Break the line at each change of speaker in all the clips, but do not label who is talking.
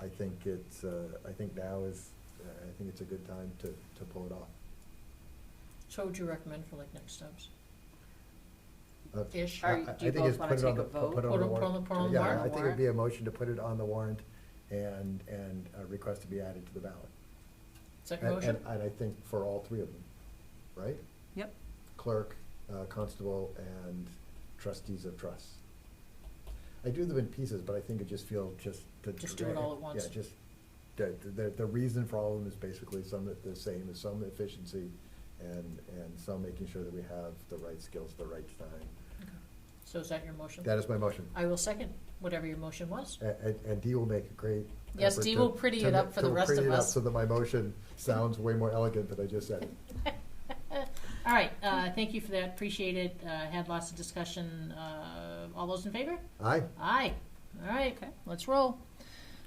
I think it's, uh, I think now is, uh, I think it's a good time to, to pull it off.
So would you recommend for like next steps?
Uh,
Ish?
I-
Are you-
I-
do you
I think it's
both
put
wanna
it on
take a
the- put
vote?
it on
Put
the
it-
warrant.
put it- put it on the
Yeah, I
warrant?
think it'd be a motion to put it on the warrant and, and a request to be added to the ballot.
Second
And, and
motion?
and I think for all three of them, right?
Yep.
Clerk, uh, constable, and trustees of trusts. I do them in pieces, but I think it just feels just to.
Just do it all at once.
Yeah, just, the, the, the reason for all of them is basically some of the same, is some efficiency and, and some making sure that we have the right skills, the right time.
Okay. So is that your motion?
That is my motion.
I will second whatever your motion was.
A- And, and Dee will make a great.
Yes,
effort
Dee
to-
will pretty
to
it
ma-
up for the
to
rest
pretty
of
it up
us.
So that my motion sounds way more elegant than I just said it.
All right, uh, thank you for that, appreciate it, uh, had lots of discussion, uh, all those in favor?
Aye,
Aye. All right,
Okay.
let's roll.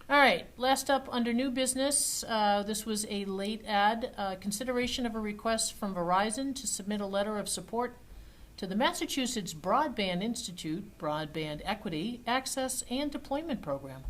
All right, last up, under new business, uh, this was a late ad. Uh, Consideration of a request from Verizon to submit a letter of support to the Massachusetts Broadband Institute Broadband Equity Access and Deployment Program.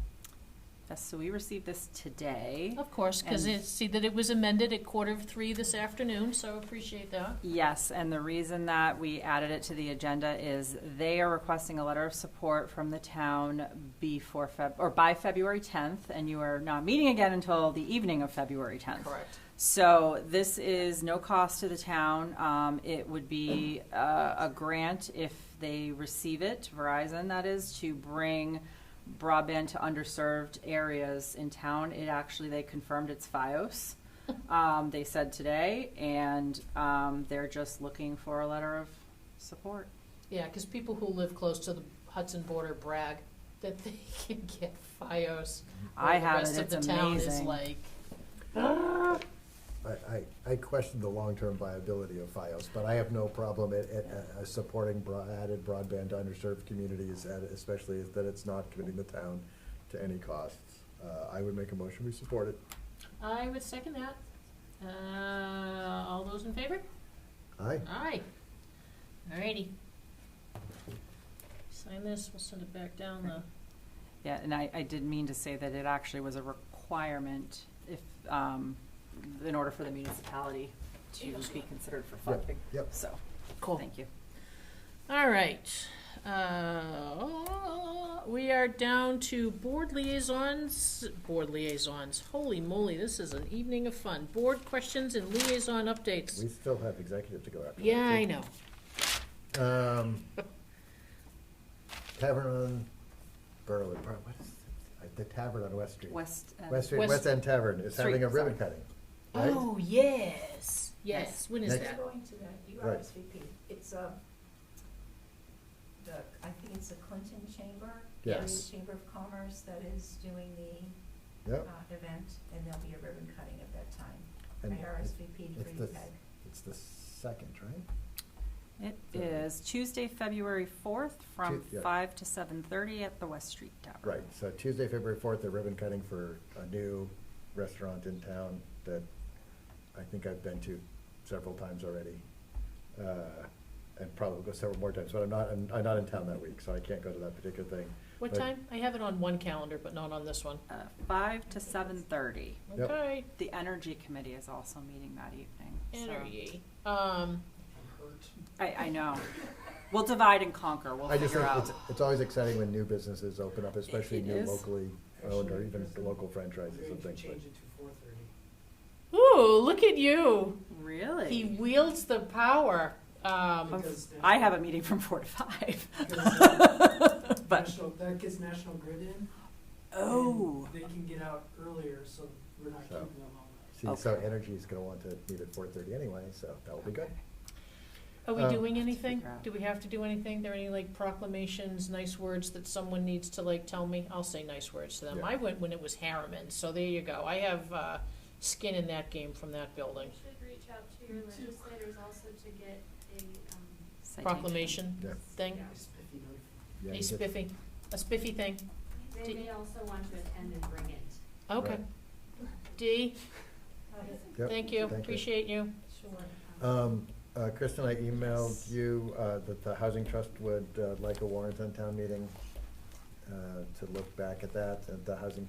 Yes, so we received this today.
Of course, because
And-
it, see that it was amended at quarter of three this afternoon, so appreciate that.
Yes, and the reason that we added it to the agenda is they are requesting a letter of support from the town before Feb, or by February tenth, and you are not meeting again until the evening of February tenth.
Correct.
So this is no cost to the town. Um, it would be a, a grant if they receive it, Verizon that is, to bring broadband to underserved areas in town. It actually, they confirmed it's FiOS. Um, they said today, and, um, they're just looking for a letter of support.
Yeah, because people who live close to the Hudson border brag that they can get FiOS. where
I
the
have
rest
it,
of
it's
the town is
amazing.
like,
I, I, I question the long-term viability of FiOS, but I have no problem at, at, uh, supporting broad, added broadband to underserved communities, and especially is that it's not committing the town to any costs. Uh, I would make a motion, we support it.
I would second that. Uh, all those in favor?
Aye,
Aye. Alrighty. Sign this, we'll send it back down the,
Yeah, and I, I did mean to say that it actually was a requirement if, um, in order for the municipality to be considered for funding.
yep.
So,
Cool.
thank you.
alright. Uh, we are down to board liaisons, board liaisons, holy moly, this is an evening of fun. Board questions and liaison
we
updates.
still have executive to go after.
Yeah, I
know.
know.
Um, Tavern on Berlin, Bar- what is, it? the Tavern on West Street.
West. uh,
West Street,
West-
West End Tavern is having a
Street,
ribbon cutting, right?
Oh, yes, yes,
Yes.
when is
Next.
Who's
that?
going to that, you
Right.
RSVP, it's, um, the, I think it's the Clinton Chamber, the
Yes.
Chamber of Commerce that is doing the, uh,
Yep,
event, and there'll be a ribbon cutting at that time.
And
I RSVP to
it's the-
Green Peg.
it's the second, right?
It is Tuesday, February fourth, from
Tu- yeah.
five to seven thirty at the West Street Tavern.
Right, so Tuesday, February fourth, they're ribbon cutting for a new restaurant in town that I think I've been to several times already. uh, And probably go several more times, but I'm not, I'm I'm not in town that week, so I can't go to that particular thing.
What
But-
time? I have it on one calendar, but not on this one.
Uh, five to seven thirty.
Yep.
Okay.
The Energy Committee is also meeting that evening. so-
Energy. Um,
I, I know. We'll divide and conquer. We'll
I just
figure
think
out.
it's, it's always exciting when new businesses open up, especially
It
new
is.
locally owned or even
Actually,
local
We're
franchises
going
and
to
things. but-
change it to four thirty.
ooh, look at you.
Really?
He wields the power. Um,
Oh.
Because the-
I have a meeting from four to five.
because, uh,
But-
National, that gets National Grid in. and
Oh.
They can get out earlier, so we're not
So.
keeping them all night.
See, so
Okay.
Energy is gonna want to meet at four thirty anyway, so that will be good.
are we
Uh,
doing anything?
figure out.
Do we have to do anything? There any like proclamations, nice words that someone needs to like tell me? I'll say nice words to them.
Yeah.
I went when it was Harriman, so there you go. I have uh, skin in that game from that building.
You should reach out to your legislators also to get a, um,
Citation.
Proclamation
Yeah.
thing,
yeah.
It's 50 notified.
Yeah,
a
you get-
spiffy, a spiffy thing.
They
Did-
may also want to attend and bring it.
Okay. Dee,
Yep,
thank you.
thank you.
Appreciate you.
Sure.
Um, uh, Kristen, I emailed you, uh, that the Housing Trust would, uh, like a warrant on town meeting, uh, to look back at that, and the Housing